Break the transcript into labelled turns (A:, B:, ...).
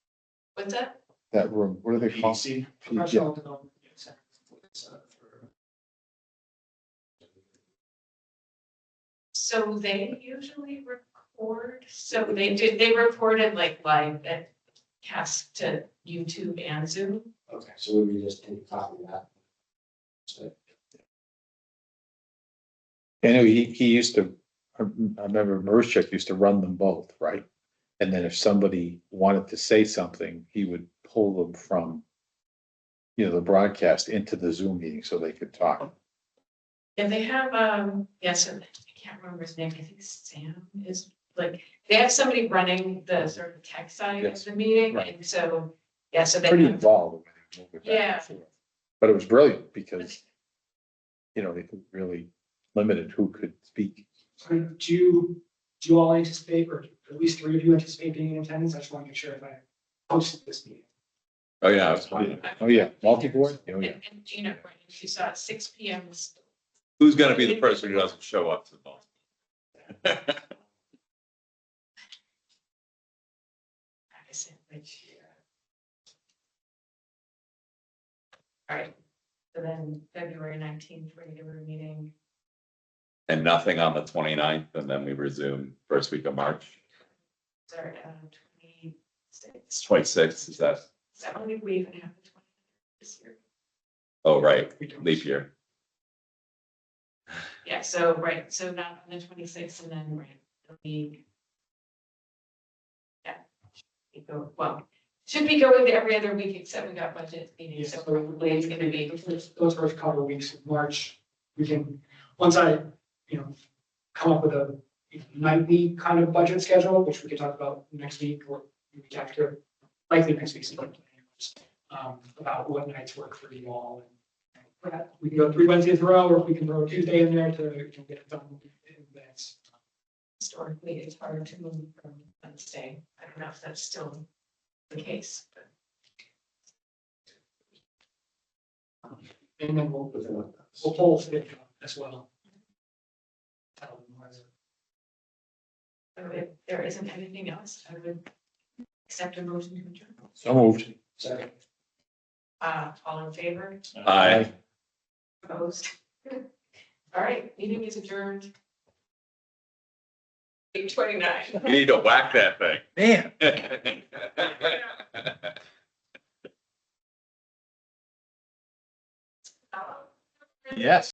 A: What's that?
B: that room, what are they called?
C: PDC.
B: Yeah,
D: Professional development. center. It's, uh, for-
A: So they usually record, so they did, they recorded like live that cast to YouTube and Zoom.
C: Okay, so we would just take a copy of that. So,
B: I know he, he used to, I I remember Merschek used to run them both, right? And then if somebody wanted to say something, he would pull them from, you know, the broadcast into the Zoom meeting so they could
A: Oh,
B: talk.
A: And they have, um, yes, I can't remember his name, I think Sam is, like, they have somebody running the sort of tech side of
B: Yes.
A: the meeting,
B: Right.
A: and so, yeah, so they.
B: Pretty
A: have-
B: involved. when they moved it back and
A: Yeah.
B: forth. But it was brilliant because, you know, it really limited who could speak.
D: I mean, Do you, do you all anticipate, or at least three of you anticipate being in attendance? I just want to make sure if I hosted this meeting.
E: Oh, yeah, it's fine.
B: Oh, yeah, multi-board, oh, yeah.
A: And and Gina, she saw at six P M,
E: Who's gonna be the person who doesn't show up to the ball?
A: I said, like, All right, so then February nineteenth, regular meeting,
E: And nothing on the 29th, and then we resume first week of March,
A: start at uh, twenty-six.
E: twenty-sixth, is that,
A: Is that when we even have the twenty this year?
E: oh, right,
D: We don't-
E: leap year.
A: Yeah, so, right, so not on the twenty-sixth and then, right, it'll be. Yeah. we go- Well, should be going to every other week except we got budget meetings, so probably it's gonna be.
D: The first- Those first couple of weeks of March, we can, once I, you know, come up with a nightly kind of budget schedule, which we can talk about next week or the week after, likely next week's. budget, Um, about what nights work for you all. and that. We can go three Wednesdays in a row, or we can throw a Tuesday in there to you know, get it done in advance.
A: historically, it's hard to move from Wednesday. I don't know if that's still the case, but
D: And then we'll, we'll poll it as well. That'll be more of a-
A: so if there isn't anything else, I would accept a motion to adjourn.
B: So moved.
D: Second.
A: Uh, all in favor,
E: Hi.
A: opposed? All right, meeting is adjourned. Eight twenty-nine.
E: You need to whack that thing.
B: Man.
A: Uh, Um,
B: Yes.